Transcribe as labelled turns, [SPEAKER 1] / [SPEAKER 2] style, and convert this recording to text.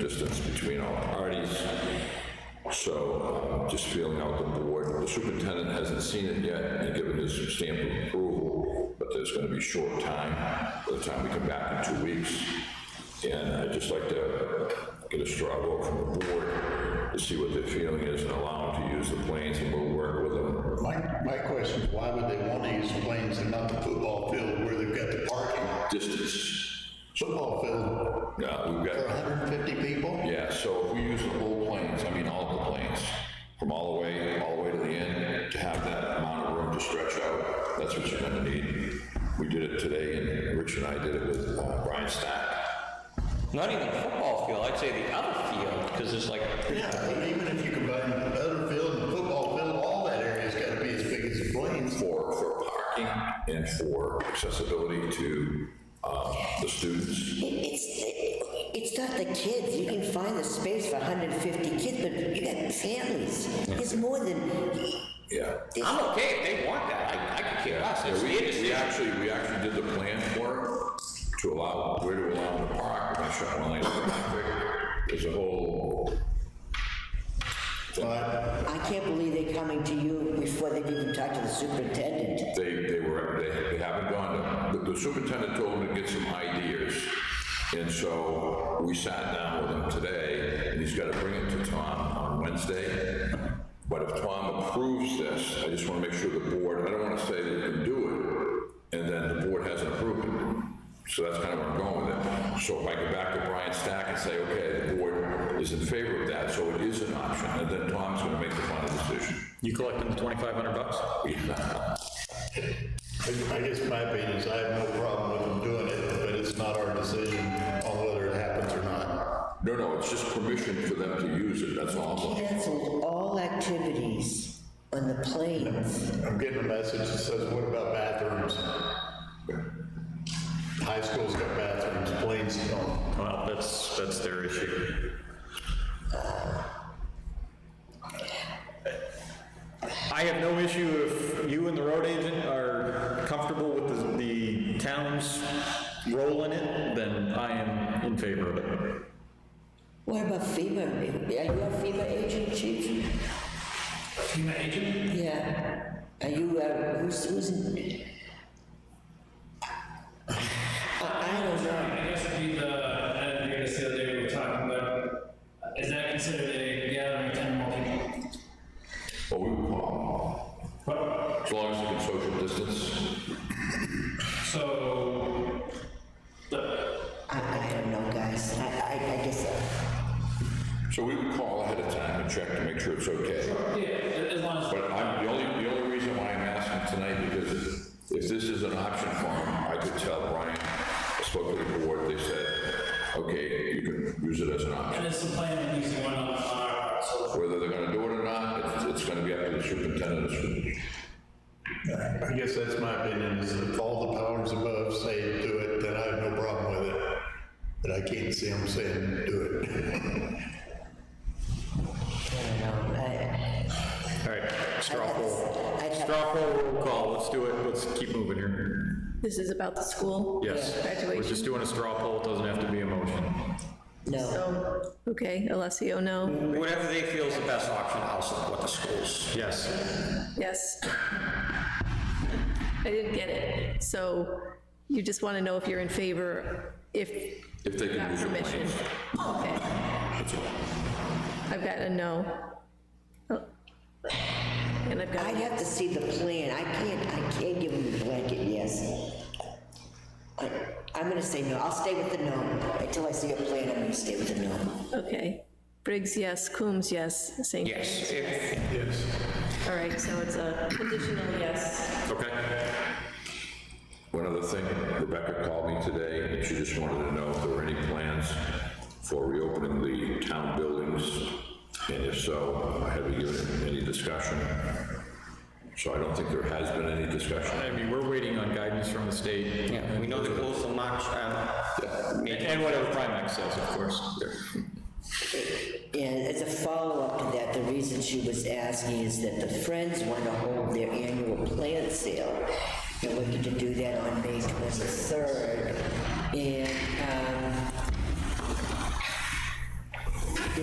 [SPEAKER 1] distance between all parties. So um, just feeling out the board. The superintendent hasn't seen it yet and given his stamp of approval, but there's going to be short time by the time we come back in two weeks. And I'd just like to get a straw vote from the board to see what their feeling is and allow them to use the planes and we'll work with them.
[SPEAKER 2] My, my question is, why would they want to use planes and not the football field where they've got the parking?
[SPEAKER 1] Distance.
[SPEAKER 2] Football field
[SPEAKER 1] Yeah, we've got.
[SPEAKER 2] for 150 people?
[SPEAKER 1] Yeah, so if we use the whole planes, I mean, all the planes, from all the way, all the way to the end, to have that amount of room to stretch out, that's what you're gonna need. We did it today, and Rich and I did it with uh, Brian Stack.
[SPEAKER 3] Not even the football field, I'd say the other field, because it's like,
[SPEAKER 2] Yeah, but even if you combine the other field and the football field, all that area's got to be as big as the planes.
[SPEAKER 1] For, for parking and for accessibility to, um, the students.
[SPEAKER 4] It- It's, it- it's not the kids, you can find the space for hundred and fifty kids, but you got families, it's more than,
[SPEAKER 1] Yeah.
[SPEAKER 3] I'm okay if they want that, I, I could care less, it's
[SPEAKER 1] We,
[SPEAKER 3] the
[SPEAKER 1] we
[SPEAKER 3] industry.
[SPEAKER 1] actually, we actually did the plan for it, to allow, where to allow them to park, and I shot one lane of traffic. There's a whole
[SPEAKER 2] But
[SPEAKER 4] I can't believe they're coming to you before they've even talked to the superintendent.
[SPEAKER 1] They, they were, they, they haven't gone, to- the the superintendent told him to get some ideas. And so we sat down with him today, and he's gotta bring it to Tom on Wednesday. But if Tom approves this, I just wanna make sure the board, I don't wanna say they can do it, and then the board hasn't approved it. So that's kind of where I'm going with it. So if I go back to Brian Stack and say, okay, the board is in favor of that, so it is an option, and then Tom's gonna make the final decision.
[SPEAKER 3] You collecting the twenty-five hundred bucks?
[SPEAKER 2] I I guess my opinion is I have no problem with them doing it, but it's not our decision on whether it happens or not.
[SPEAKER 1] No, no, it's just permission for them to use it, that's all. I'm looking for.
[SPEAKER 4] Cancelled all activities on the planes.
[SPEAKER 2] I'm getting a message that says, what about bathrooms? High schools got bathrooms, planes don't.
[SPEAKER 5] Well, Uh, that's, that's their issue. I have no issue if you and the road agent are comfortable with the- the town's role in it, then I am in favor of it.
[SPEAKER 4] What about FEMA? Are you a FEMA agent, chief? FEMA agent? Yeah. Are you, uh, who's, who's? in- I, I don't know.
[SPEAKER 6] I guess it'd be the, I think it's the other day we were talking about, is that considered a gathering of ten more people?
[SPEAKER 1] Well, we would call them. As long as they can social distance.
[SPEAKER 6] So, the,
[SPEAKER 4] I, I don't know, guys. I, I, I guess, uh,
[SPEAKER 1] So we would call ahead of time and check to make sure it's okay.
[SPEAKER 6] yeah, as long as,
[SPEAKER 1] But I'm, the only, the only reason why I'm asking tonight, because if this is an option for him, I could tell Brian, I spoke to the board, they said, okay, you can use it as an option.
[SPEAKER 6] and it's the plan of using one on on our part, so.
[SPEAKER 1] Whether they're gonna do it or not, it's, it's gonna be up to the superintendent.
[SPEAKER 2] I guess that's my opinion, is if all the powers above say do it, then I have no problem with it. But I can't see them saying do it.
[SPEAKER 4] I don't know. I,
[SPEAKER 5] All right, straw poll.
[SPEAKER 4] I'd have-
[SPEAKER 5] Straw poll roll call, let's do it, let's keep moving here.
[SPEAKER 7] This is about the school?
[SPEAKER 5] Yes, we're just
[SPEAKER 7] Graduation?
[SPEAKER 5] doing a straw poll, it doesn't have to be a motion.
[SPEAKER 4] no.
[SPEAKER 7] So, okay, Alessio, no.
[SPEAKER 3] Whatever they feel is the best option, I'll support the schools.
[SPEAKER 5] Yes,
[SPEAKER 7] Yes. I didn't get it. So you just want to know if you're in favor, if
[SPEAKER 1] If they
[SPEAKER 7] you
[SPEAKER 1] can
[SPEAKER 7] got
[SPEAKER 1] use your
[SPEAKER 7] permission?
[SPEAKER 1] planes.
[SPEAKER 7] Okay. I've got a no. Oh. And I've got,
[SPEAKER 4] I'd have to see the plan. I can't, I can't give them the blanket yes. I, I'm gonna say no. I'll stay with the no. Until I see a plan, I'm gonna stay with the no.
[SPEAKER 7] okay. Briggs, yes. Coombs, yes. St.
[SPEAKER 3] Yes, if,
[SPEAKER 7] All right, so it's a conditional yes.
[SPEAKER 5] okay.
[SPEAKER 1] One other thing, Rebecca called me today, and she just wanted to know if there were any plans for reopening the town buildings, and if so, have you given any discussion? So I don't think there has been any discussion.
[SPEAKER 5] I mean, we're waiting on guidance from the state.
[SPEAKER 3] yeah, we know the goals will march, um,
[SPEAKER 5] And- And whatever Primax says, of course.
[SPEAKER 4] And as a follow-up to that, the reason she was asking is that the Friends want to hold their annual plant sale. They're looking to do that on May 23rd. And um,